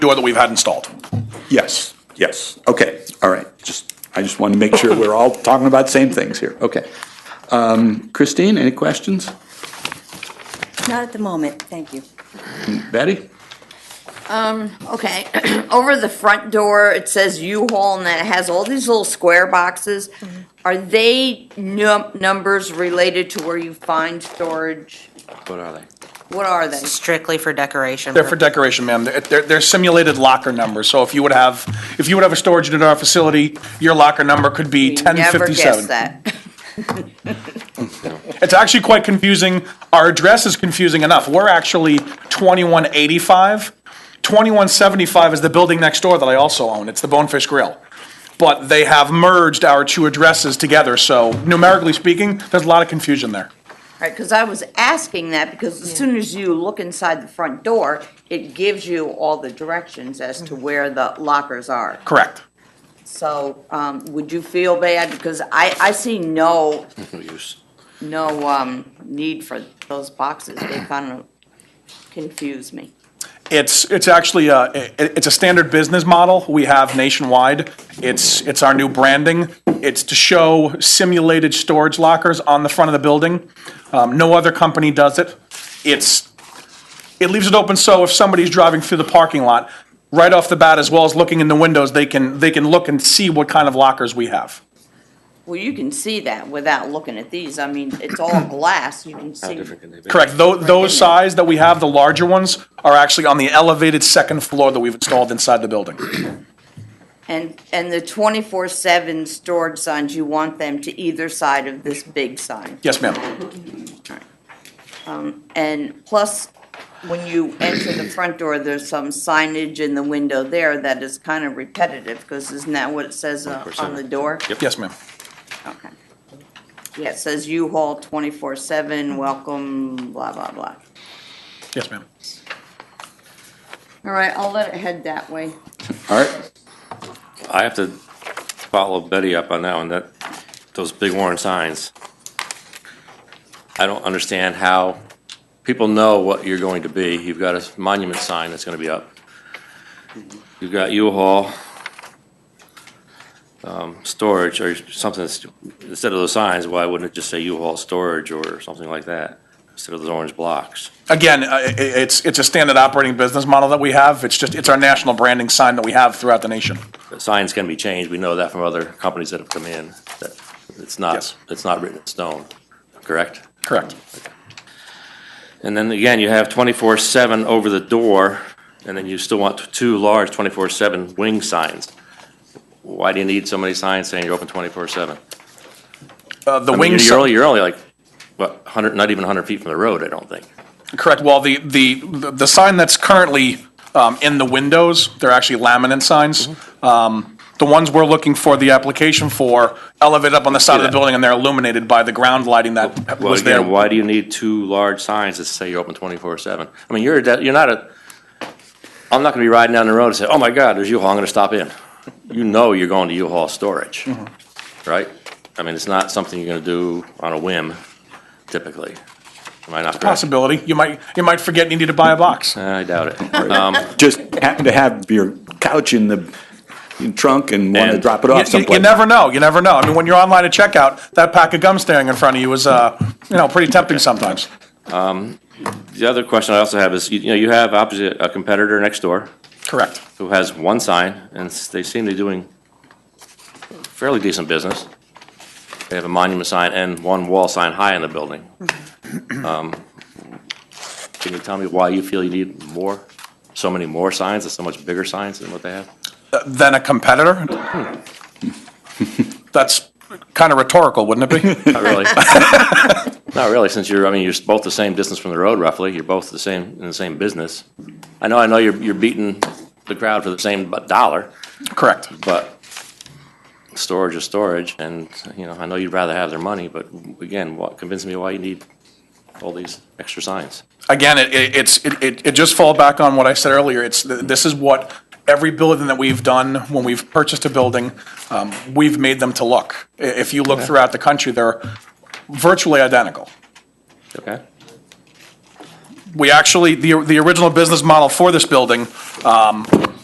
door that we've had installed. Yes, yes, okay, all right, just, I just wanted to make sure we're all talking about the same things here, okay. Um, Christine, any questions? Not at the moment, thank you. Betty? Okay, over the front door, it says U-Haul and then it has all these little square boxes. Are they num- numbers related to where you find storage? What are they? What are they? strictly for decoration. They're for decoration, ma'am. They're- They're, they're simulated locker numbers. So if you would have, if you would have a storage unit in our facility, your locker number could be ten Never guess fifty-seven. that. It's actually quite confusing. Our address is confusing enough. We're actually 2185. 2175 is the building next door that I also own. It's the Bonefish Grill. But they have merged our two addresses together, so numerically speaking, there's a lot of confusion there. Right, because I was asking that because as soon as you look inside the front door, it gives you all the directions as to where the lockers are. Correct. So, um, would you feel bad? Because I, I see no, No use. no, um, need for those boxes. They kind of confuse me. It's, it's actually, uh, it, it's a standard business model we have nationwide. It's, it's our new branding. It's to show simulated storage lockers on the front of the building. Um, no other company does it. It's, it leaves it open so if somebody's driving through the parking lot, right off the bat, as well as looking in the windows, they can, they can look and see what kind of lockers we have. Well, you can see that without looking at these. I mean, it's all glass. You can How see. different can they be? Correct, Tho- those there. size that we have, the larger ones, are actually on the elevated second floor that we've installed inside the building. And, and the twenty-four seven storage signs, you want them to either side of this big sign. Yes, ma'am. And plus, when you enter the front door, there's some signage in the window there that is kind of repetitive, because isn't that what it says uh, on the door? Yes, ma'am. Okay. Yeah, it says U-Haul twenty-four seven, welcome, blah, blah, blah. Yes, ma'am. All right, I'll let it head that way. All right, I have to follow Betty up on that one, that, those big warning signs. I don't understand how, people know what you're going to be. You've got a monument sign that's gonna be up. You've got U-Haul, um, storage or something, that's- instead of those signs, why wouldn't it just say U-Haul storage or something like that? Instead of those orange blocks. Again, uh, i- i- it's, it's a standard operating business model that we have. It's just, it's our national branding sign that we have throughout the nation. But Signs can be changed, we know that from other companies that have come in, that it's Yes. not, it's not written in stone, correct? Correct. And then again, you have twenty-four seven over the door, and then you still want two large twenty-four seven wing signs. Why do you need so many signs saying you're open twenty-four seven? Uh, The I mean, wing, you're si- only, you're only like, what, hundred, not even hundred feet from the road, I don't think. correct, well, the, the, the sign that's currently um, in the windows, they're actually laminate signs. Mm-hmm. Um, The ones we're looking for, the application for, elevate up on the side of the that. building and they're illuminated by the ground lighting that Well, was there. again, why do you need two large signs that say you're open twenty-four seven? I mean, you're, a de- you're not a, I'm not gonna be riding down the road and say, oh my God, there's U-Haul, I'm gonna stop in. You know you're going to U-Haul storage, right? I mean, it's not something you're gonna do on a whim typically. Am I not correct? Possibility, you might, you might forget you need to buy a box. I doubt it. Um, just happen to have your couch in the trunk and want to And- drop it You- off you- You someplace. never know, you never know. I mean, when you're online at checkout, that pack of gum staring in front of you is, uh, you know, pretty tempting sometimes. The other question I also have is, you you know, you have opposite, a competitor next door Correct. who has one sign, and s- they seem to be doing fairly decent business. They have a monument sign and one wall sign high in the building. Um, Can you tell me why you feel you need more, so many more signs, and so much bigger signs than what they have? Uh, than a competitor? That's kind of rhetorical, wouldn't it be? Not really. Not really, since you're, I mean, you're both the same distance from the road roughly, you're both the same, in the same business. I know, I know you're, you're beating the crowd for the same bu- dollar, Correct. But storage is storage, and, you know, I know you'd rather have their money, but again, what, convince me why you need all these extra signs. Again, it, it- it's, it, it it just fall back on what I said earlier. It's, th- this is what every building that we've done, when we've purchased a building, um, we've made them to look. I- If you look throughout the country, they're virtually identical. Okay? We actually, the, the original business model for this building, um,